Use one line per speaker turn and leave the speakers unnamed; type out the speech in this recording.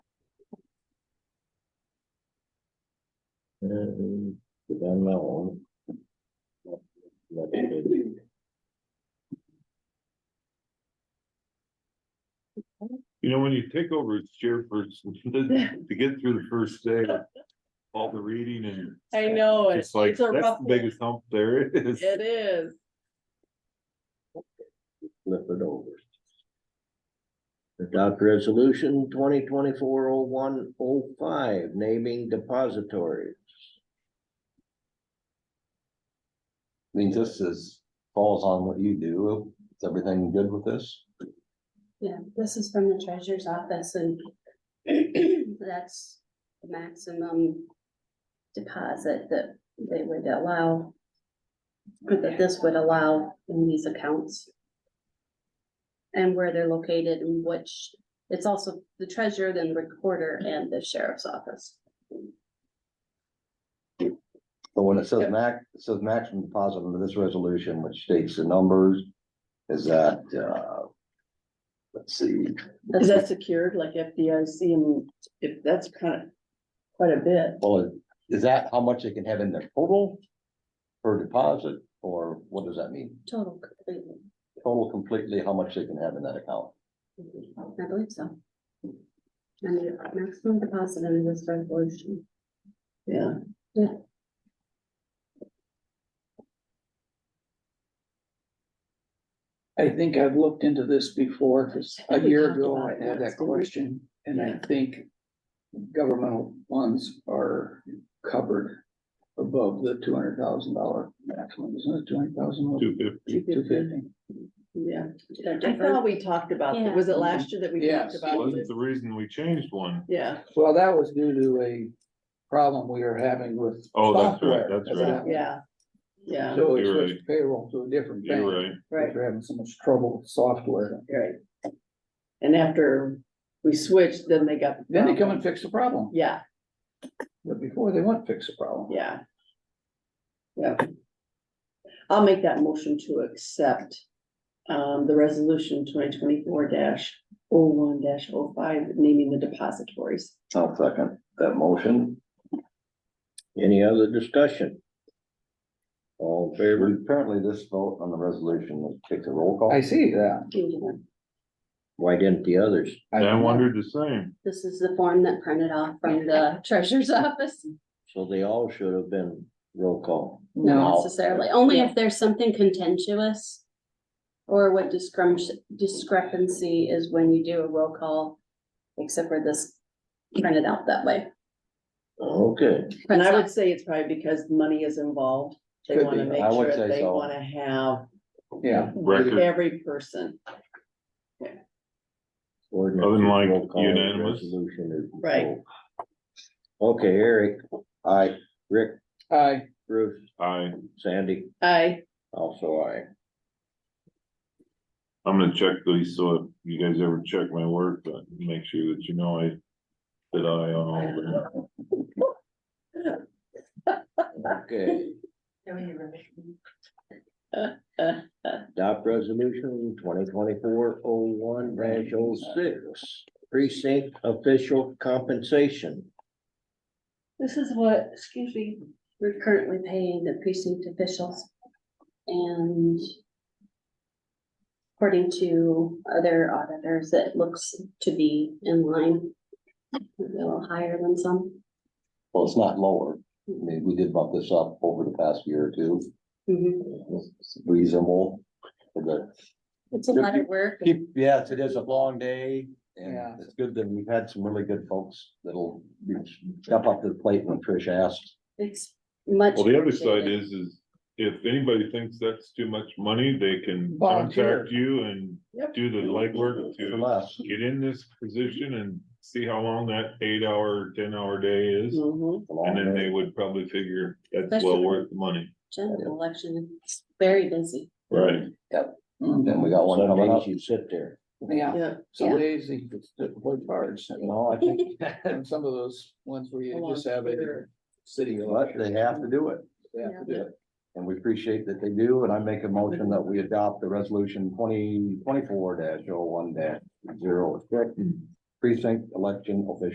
Eh, And then that one.
You know, when you take over as chairperson, to get through the first day, of all the reading and.
I know, it-
It's like,
it's a rough
that's the
one.
biggest hump there is.
it is.
Flip it over. Adopt resolution twenty twenty-four oh one oh five, naming depositories.
I mean, this is, falls on what you do, is everything good with this?
Yeah, this is from the treasurer's office and that's the maximum deposit that they would allow. or That this would allow in these accounts. And where they're located and which, it's also the treasurer, then recorder and the sheriff's office.
But when it says
Yep.
max, it says maximum deposit under this resolution, which states the numbers, is that, uh. Let's see,
Is that secured like FDIC and if that's kind of quite a bit?
well, is that how much they can have in their total? Per deposit, or what does that mean?
Total completely,
Total completely, how much they can have in that account?
I believe so. And the maximum deposit under this resolution.
Yeah.
Yeah.
I think I've looked into this before, 'cause
I
a
think we
year
talked
ago,
about
I
it
had that
last, didn't we?
question, and I
Yeah.
think. Governmental funds are covered above the two hundred thousand dollar maximum, isn't it, two hundred thousand?
Two fifty,
Two fifty,
Yeah,
They're
I
different.
thought we talked about, that.
Yeah.
was it last year that we talked
Yes.
about
wasn't
this?
the reason we changed one.
Yeah,
well, that was due to a problem we were having with.
Oh, that's right,
software
that's
at
right.
that point.
yeah, yeah,
So we
You're
switched payroll to a different bank,
You're
because
right.
right,
we're having so much trouble with software,
right. And after we switched, then they got. the
then they come
problem.
and fix the problem,
Yeah,
but before they wouldn't fix the problem.
yeah. Yeah. I'll make that motion to accept um, the resolution twenty twenty-four dash oh one dash oh five, naming the depositories.
I'll second that motion.
Any other discussion? All in favor?
Apparently this vote on the resolution takes a roll call.
I see that.
Why didn't the others?
And I wondered the same.
This is the form that printed off from the treasurer's office,
So they all should have been roll call.
not
No,
necessarily, only if there's something contentious. Or what discrepancy, discrepancy is when you do a roll call, except for this printed out that way.
Okay,
And I would say it's probably because money is involved. They
Could
wanna
be.
make
I would
sure
say
they
so.
wanna have
yeah,
Record,
every person.
ordinance.
Other than
is
like
roll call,
unanimous.
resolution is
Right.
roll. Okay, Eric,
I,
Rick,
I.
Bruce,
I,
Sandy,
I,
also I.
I'm gonna check these, so if you guys ever check my work, uh, make sure that you know I. That I on all of them.
Okay.
uh,
Adopt resolution twenty twenty-four oh one dash oh six, precinct official compensation.
This is what, excuse me, we're currently paying the precinct officials. And. According to other auditors, it looks to be in line. A little higher than some.
well, it's not lower. I mean, we did bump this up over the past year or two.
Mhm.
It's Reasonable. for the-
It's a lot of work.
Keep, yes, it is a long day
Yeah.
and it's good that we've had some really good folks that'll step up to the plate when Trish asks.
It's much.
Well, the other side
appreciated.
is, is if anybody thinks that's too much money, they can
Volunteer.
contact you and
Yep.
do the legwork
For
to.
less.
Get in this position and see how long that eight hour, ten hour day is,
mhm.
It's a long
and then
day.
they would probably figure that's well
Especially-
worth the money.
General election, it's very busy.
Right.
Then we got one
Some
coming up.
days you sit there.
Yeah,
yeah,
some
Yeah.
days they just did play cards, you know, I think, and some of those ones where you just have it. in City.
But they have to do it.
They have to do it.
And we appreciate that they do, and I make a motion that we adopt the resolution twenty twenty-four dash oh one dash zero six. Precinct election official